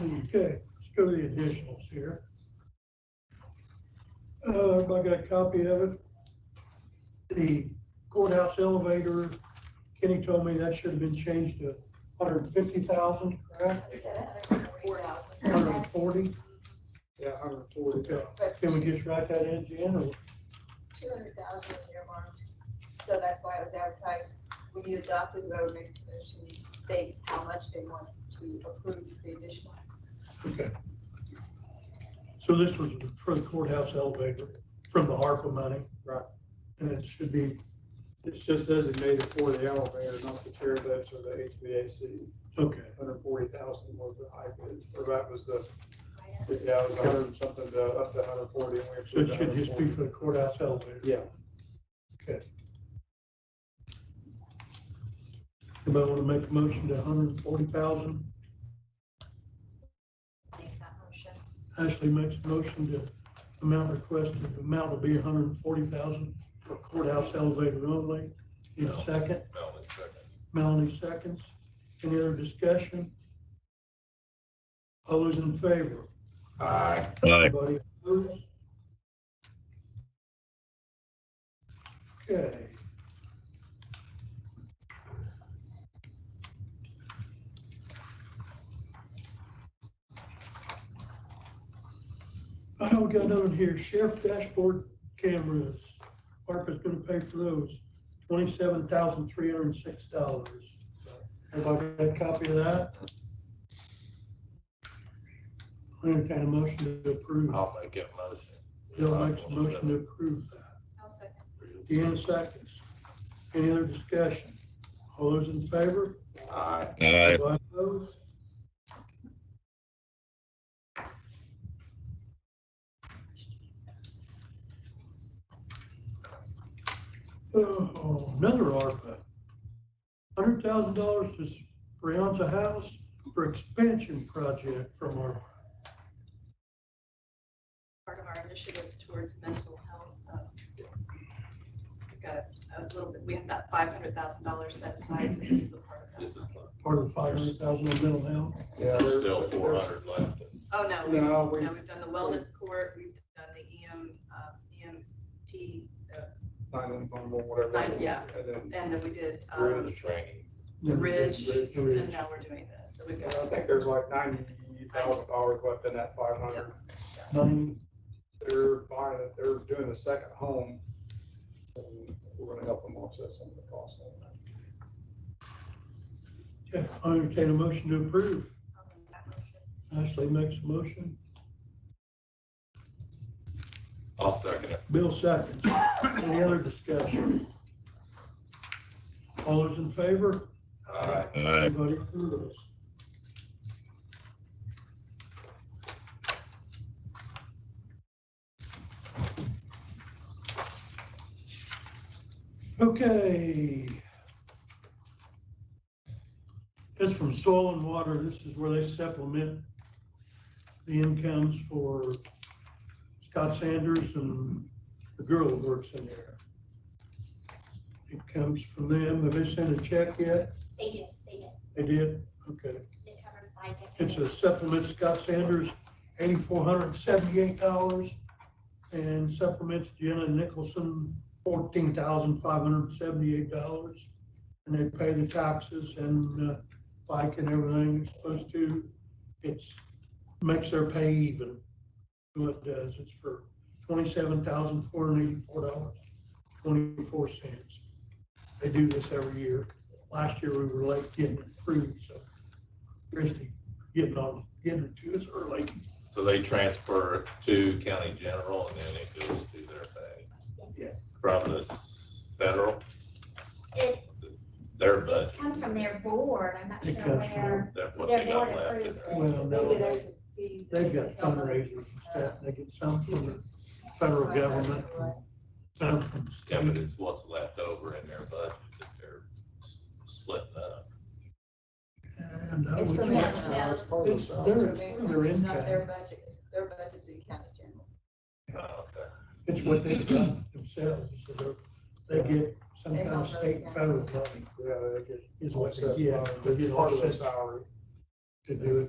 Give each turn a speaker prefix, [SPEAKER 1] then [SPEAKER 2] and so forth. [SPEAKER 1] Okay, let's go to the additionals here. Uh, everybody got a copy of it. The courthouse elevator, Kenny told me that should have been changed to hundred and fifty thousand, correct?
[SPEAKER 2] Is that a hundred and forty
[SPEAKER 1] Hundred
[SPEAKER 2] thousand?
[SPEAKER 1] and forty?
[SPEAKER 3] Yeah, hundred forty.
[SPEAKER 1] Okay,
[SPEAKER 2] But
[SPEAKER 1] can we just write that in, Jen, or
[SPEAKER 2] two hundred thousand was earmarked, so that's why it was advertised. When you adopt the road mix commission, you state how much they want to approve the additional.
[SPEAKER 1] Okay. So this was for the courthouse elevator from the ARPA money?
[SPEAKER 3] Right.
[SPEAKER 1] And it should be,
[SPEAKER 3] It's just designated for the elevator, not the chair lifts or the HVAC.
[SPEAKER 1] okay,
[SPEAKER 3] Hundred forty thousand was the high bid, or that was the, yeah, it was hundred and something to up to hundred forty. and we
[SPEAKER 1] so
[SPEAKER 3] approved
[SPEAKER 1] it should just be for the courthouse elevator?
[SPEAKER 3] 140. Yeah,
[SPEAKER 1] Okay. Anybody want to make a motion to hundred and forty thousand?
[SPEAKER 2] Make that motion.
[SPEAKER 1] Ashley makes a motion to amount requested, the amount will be hundred and forty thousand for courthouse elevator only. Need a second?
[SPEAKER 4] Melvin seconds.
[SPEAKER 1] Melanie seconds. Any other discussion? All those in favor?
[SPEAKER 4] Aye.
[SPEAKER 5] Aye.
[SPEAKER 1] Anybody opposed? Okay. I we got another one here, sheriff dashboard cameras, ARPA's gonna pay for those, twenty-seven thousand three hundred and six dollars. Everybody got a copy of that? I entertain a motion to approve.
[SPEAKER 4] I'll make it motion.
[SPEAKER 1] Bill makes a motion to approve that.
[SPEAKER 2] I'll second.
[SPEAKER 1] Deanna seconds. Any other discussion? All those in favor?
[SPEAKER 4] Aye.
[SPEAKER 5] Aye.
[SPEAKER 1] Anybody opposed? Oh, Another ARPA. Hundred thousand dollars to Brianza House for expansion project from ARPA.
[SPEAKER 6] part of our initiative towards mental health. uh, We've got a a little bit, we have that five hundred thousand dollars set aside, so this is a part of that.
[SPEAKER 4] This is,
[SPEAKER 1] part of five hundred thousand on mental health.
[SPEAKER 3] yeah.
[SPEAKER 4] there's
[SPEAKER 3] there-
[SPEAKER 4] still four hundred left.
[SPEAKER 6] Oh, no, we,
[SPEAKER 3] No, we-
[SPEAKER 6] no, we've done the wellness court, we've done the EM, uh, EMT,
[SPEAKER 3] Nine and one more, whatever.
[SPEAKER 6] Nine, yeah.
[SPEAKER 3] And then,
[SPEAKER 6] and then we did,
[SPEAKER 4] We're in the
[SPEAKER 6] um,
[SPEAKER 4] training.
[SPEAKER 6] the ridge,
[SPEAKER 3] Ridge.
[SPEAKER 6] and uh, now we're doing this, so we've
[SPEAKER 3] yeah,
[SPEAKER 6] got.
[SPEAKER 3] I think there's like ninety thousand dollars left in that five hundred.
[SPEAKER 1] Ninety,
[SPEAKER 3] They're buying it, they're doing the second home. and We're gonna help them offset some of the costs. on that.
[SPEAKER 1] yeah, I entertain a motion to approve.
[SPEAKER 6] I'll make that motion.
[SPEAKER 1] Ashley makes a motion,
[SPEAKER 4] I'll second it.
[SPEAKER 1] Bill seconds. Any other discussion? All those in favor?
[SPEAKER 4] Aye.
[SPEAKER 5] Aye.
[SPEAKER 1] Anybody opposed? Okay. It's from soil and water. This is where they supplement the incomes for Scott Sanders and the girl that works in there. It comes from them. Have they sent a check yet?
[SPEAKER 7] They do, they do.
[SPEAKER 1] They did, okay.
[SPEAKER 7] It covers bike. it
[SPEAKER 1] It's a
[SPEAKER 7] covers-
[SPEAKER 1] supplement Scott Sanders, eighty-four hundred and seventy-eight dollars. And supplements Jenna Nicholson, fourteen thousand five hundred and seventy-eight dollars. And they pay the taxes and uh, bike and everything it's supposed to. It's, makes their pay even. What it does, it's for twenty-seven thousand four hundred and eighty-four dollars, twenty-four cents. They do this every year. Last year we were late getting it approved, so Christie getting on, getting it to us early.
[SPEAKER 4] So they transfer it to county general and then it goes to their pay.
[SPEAKER 1] Yeah.
[SPEAKER 4] From the s- federal,
[SPEAKER 7] It's,
[SPEAKER 4] their budget,
[SPEAKER 7] comes from their board, I'm not
[SPEAKER 1] It
[SPEAKER 7] sure
[SPEAKER 1] comes from
[SPEAKER 7] where,
[SPEAKER 4] that what
[SPEAKER 7] their
[SPEAKER 4] they
[SPEAKER 7] board
[SPEAKER 4] got left. in
[SPEAKER 7] approves
[SPEAKER 4] there.
[SPEAKER 1] Well,
[SPEAKER 7] it.
[SPEAKER 1] no.
[SPEAKER 2] Maybe there's some fees. that
[SPEAKER 1] They've
[SPEAKER 2] they
[SPEAKER 1] got
[SPEAKER 2] could help us.
[SPEAKER 1] fundraisers and stuff, they get some from the federal government, some from the
[SPEAKER 4] Yeah, but
[SPEAKER 1] state.
[SPEAKER 4] it's what's left over in their budget that they're s- splitting up.
[SPEAKER 1] And I
[SPEAKER 2] It's
[SPEAKER 1] would-
[SPEAKER 2] from
[SPEAKER 3] It's
[SPEAKER 2] them.
[SPEAKER 3] part of the
[SPEAKER 1] It's
[SPEAKER 3] south.
[SPEAKER 1] their, it's
[SPEAKER 2] It's
[SPEAKER 1] their
[SPEAKER 2] not their
[SPEAKER 1] income,
[SPEAKER 2] budget, it's their budget's in county general.
[SPEAKER 4] Oh, okay.
[SPEAKER 1] it's what they've done themselves, so they're, they get some kind of state and federal money
[SPEAKER 3] Yeah, they get
[SPEAKER 1] is what
[SPEAKER 3] offset.
[SPEAKER 1] they get.
[SPEAKER 3] by-
[SPEAKER 1] They get
[SPEAKER 3] It's part of the
[SPEAKER 1] offset
[SPEAKER 3] salary.
[SPEAKER 1] to do it.